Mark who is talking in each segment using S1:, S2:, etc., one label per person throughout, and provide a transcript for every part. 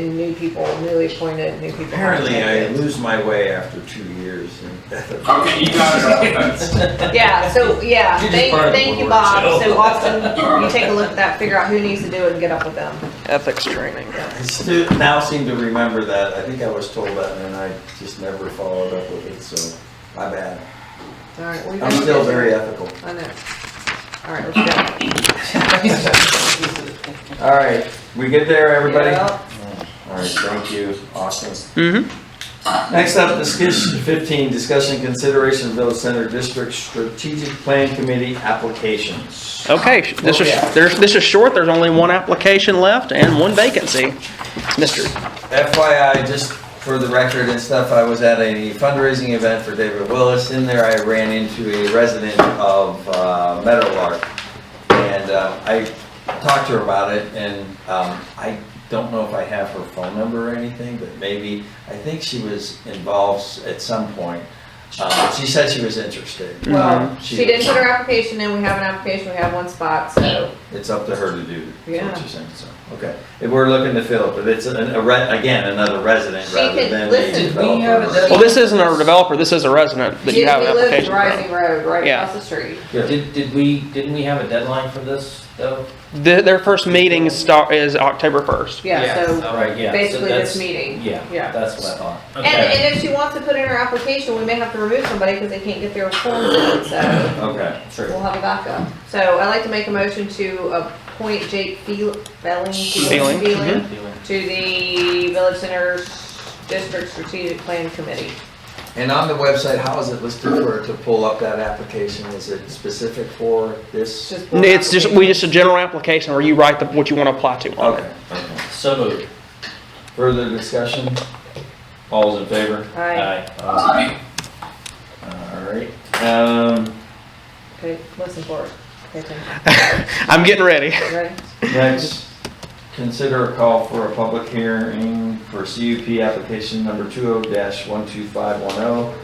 S1: new people, newly appointed, new people.
S2: Apparently, I
S1: elected.
S2: lose my way after two years. and-
S3: Okay, you got it. That's-
S1: Yeah, so, yeah,
S4: You just
S1: thank,
S4: fired
S1: thank you,
S4: one word,
S1: Bob.
S4: so.
S1: So Austin, you take a look at that, figure out who needs to do it and get up with them.
S5: Ethics training.
S2: I still now seem to remember that. I think I was told that and I just never followed up with it, so my bad.
S1: All right, we've
S2: I'm
S1: been
S2: still
S1: busy.
S2: very ethical.
S1: I know. All right, let's go.
S2: All right, we good there, everybody?
S1: Yeah.
S2: All right, thank you, Austin.
S5: Mm-hmm.
S2: Next up, discussion fifteen, discussion consideration of Village Center District Strategic Plan Committee applications.
S5: Okay, sh- this is, there's, this is short, there's only one application left and one vacancy. Mr.
S2: FYI, just for the record and stuff, I was at a fundraising event for David Willis. In there, I ran into a resident of uh, Meadowlark. And uh, I talked to her about it and um, I don't know if I have her phone number or anything, but maybe, I think she was involved at some point. Uh, She said she was interested.
S5: Mm-hmm.
S1: Well,
S2: Mhm.
S1: she didn't put her application in, we have an application, we have one spot, so,
S2: It's up to her to do, is what
S1: Yeah.
S2: you're saying, so, okay. If we're looking to fill, it, but it's, a- a re- again, another resident
S1: She
S2: rather
S1: could-
S2: than a
S1: listen, we
S2: developer.
S4: have a-
S5: Well, this isn't our developer, this is a resident that
S1: we
S5: you have an
S1: live in
S5: application from.
S1: Rising Road, right
S5: Yeah.
S1: across the street.
S2: Good.
S4: Did, did we, didn't we have a deadline for this though?
S5: The- Their first meeting start is October 1st.
S1: Yeah, so
S4: All right, yeah. so
S1: Um, basically this
S4: that's-
S1: meeting.
S4: Yeah,
S1: Yeah.
S4: that's what I thought.
S1: And, and if she wants to put in her application, we may have to remove somebody because they can't get their forms in, so
S2: Okay,
S4: True.
S1: we'll have a backup. So I'd like to make a motion to appoint Jake Feel- Belling
S5: Feeling, Mm-hmm.
S1: Feeling to the Village Center District Strategic Plan Committee.
S2: and on the website, how is it listed for, to pull up that application? Is it specific for
S1: It's
S2: this?
S1: just. one
S5: It's just, we
S1: application.
S5: just a general application where you write the, what you want to apply to on it.
S2: Okay, okay.
S4: So moved.
S2: Further discussion? All's in favor? Uh,
S1: Aye.
S4: Aye.
S2: All right, um,
S1: Okay, listen for it. Pay attention.
S5: I'm getting ready.
S1: You Ready?
S2: next, consider a call for a public hearing for CUP application number two oh dash one two five one oh.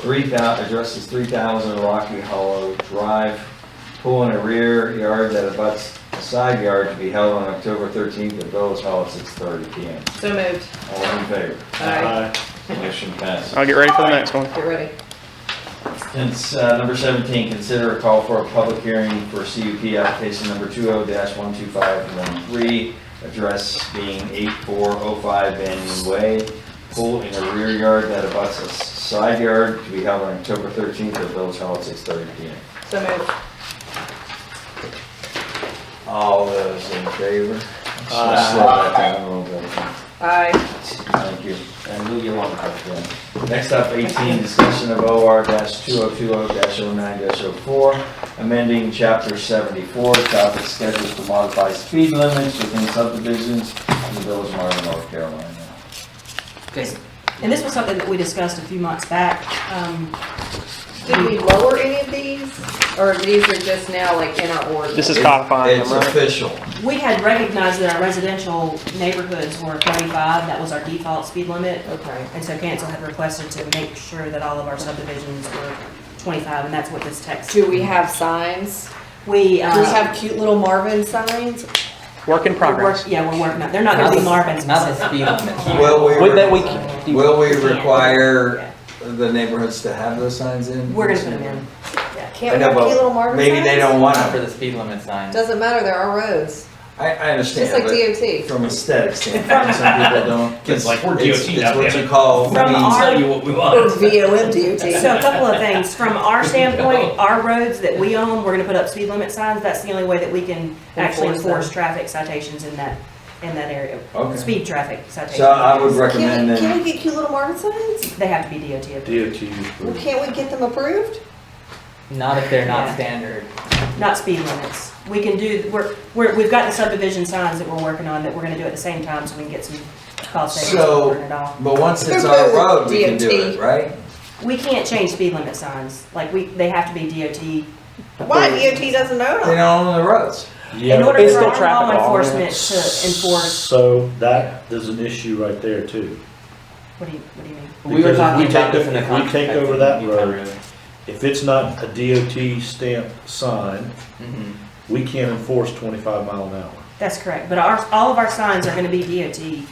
S2: Three thou, addresses three thousand Rocky Hollow Drive, pool in a rear yard that abuts a side yard to be held on October thirteenth at Village Hall at six thirty P M.
S1: So moved.
S2: All in favor?
S1: Aye.
S2: Motion passes.
S5: I'll get ready for the next one.
S1: Get ready.
S2: Cons- uh, number seventeen, consider a call for a public hearing for CUP application number two oh one two five one three, address being eight four oh five Banyan Way, pool in a rear yard that abuts a s- side yard to be held on October thirteenth at Village Hall at six thirty P M.
S1: So moved.
S2: All those in favor?
S4: Aye.
S2: Slow that down a little bit.
S1: Aye.
S2: Thank you.
S4: And move you along.
S2: Next up, 18, discussion of OR 2020-09-04, amending Chapter 74, traffic schedules to modify speed limits within subdivisions in the Village of Marvin, North Carolina.
S6: And this was something that we discussed a few months back. Um,
S1: Did we lower any of these, or these are just now like in our order?
S5: This is codifying
S2: It's
S5: them, right?
S2: official.
S6: We had recognized that our residential neighborhoods were 35, that was our default speed limit.
S1: Okay.
S6: And so council had requested to make sure that all of our subdivisions were 25, and that's what this text.
S1: Do we have signs?
S6: We,
S1: Do we
S6: uh,
S1: have cute little Marvin signs?
S5: Work in
S6: we're work-
S5: progress.
S6: yeah, we're working on, they're not gonna be Marvin's.
S4: Not the speed limit.
S2: Will
S5: With that, we,
S2: we,
S5: can-
S2: will we
S6: Yeah.
S2: require the neighborhoods to have those signs in?
S6: We're gonna put them in.
S2: I
S1: Can't we
S2: know,
S1: have cute little
S2: but
S1: Marvin
S2: maybe they
S1: signs?
S2: don't want
S4: Not for
S2: to.
S4: the speed limit sign.
S1: Doesn't matter, they're our roads.
S2: I, I
S1: Just
S2: understand,
S1: like DOT.
S2: but from aesthetic standpoint, some people don't.
S7: It's like, we're
S2: It's-
S7: DOT now,
S2: It's what
S7: damn
S2: you call,
S6: From
S2: means-
S6: our-
S7: tell you what we
S1: Or
S7: want.
S1: VOM DOT.
S6: So a couple of things, from our standpoint, our roads that we own, we're gonna put up speed limit signs, that's the only way that we can actually
S1: Enforce them.
S6: enforce traffic citations in that, in that area.
S2: Okay.
S6: Speed traffic citations.
S2: So I would recommend
S1: Can we,
S2: that.
S1: can we get cute little Marvin signs?
S6: They have to be DOT approved.
S1: Well, Can't we get them approved?
S4: Not if they're not
S6: Yeah.
S4: standard.
S6: not speed limits. We can do, we're, we're, we've got the subdivision signs that we're working on that we're gonna do at the same time, so we can get some cost savings
S2: So-
S6: and burn it off.
S2: But once it's our road, we can do it, right?
S6: We can't change speed limit signs, like we, they have to be DOT.
S1: Why? DOT doesn't own
S2: They
S1: them.
S2: don't own the roads.
S6: In order
S5: it's
S6: for
S5: still
S6: our
S5: traffic
S6: law
S5: law,
S6: enforcement to enforce,
S8: So that, there's an issue right there too.
S6: what do you, what do you mean?
S4: We were
S8: Because if
S4: talking
S8: we
S4: about
S8: take-
S4: this in the
S8: if we
S4: context.
S8: take
S4: of
S8: over that
S4: Utah
S8: road- If it's not a DOT stamped sign,
S4: Mhm.
S8: we can't enforce twenty-five mile an hour.
S6: That's correct, but our, all of our signs are gonna be DOT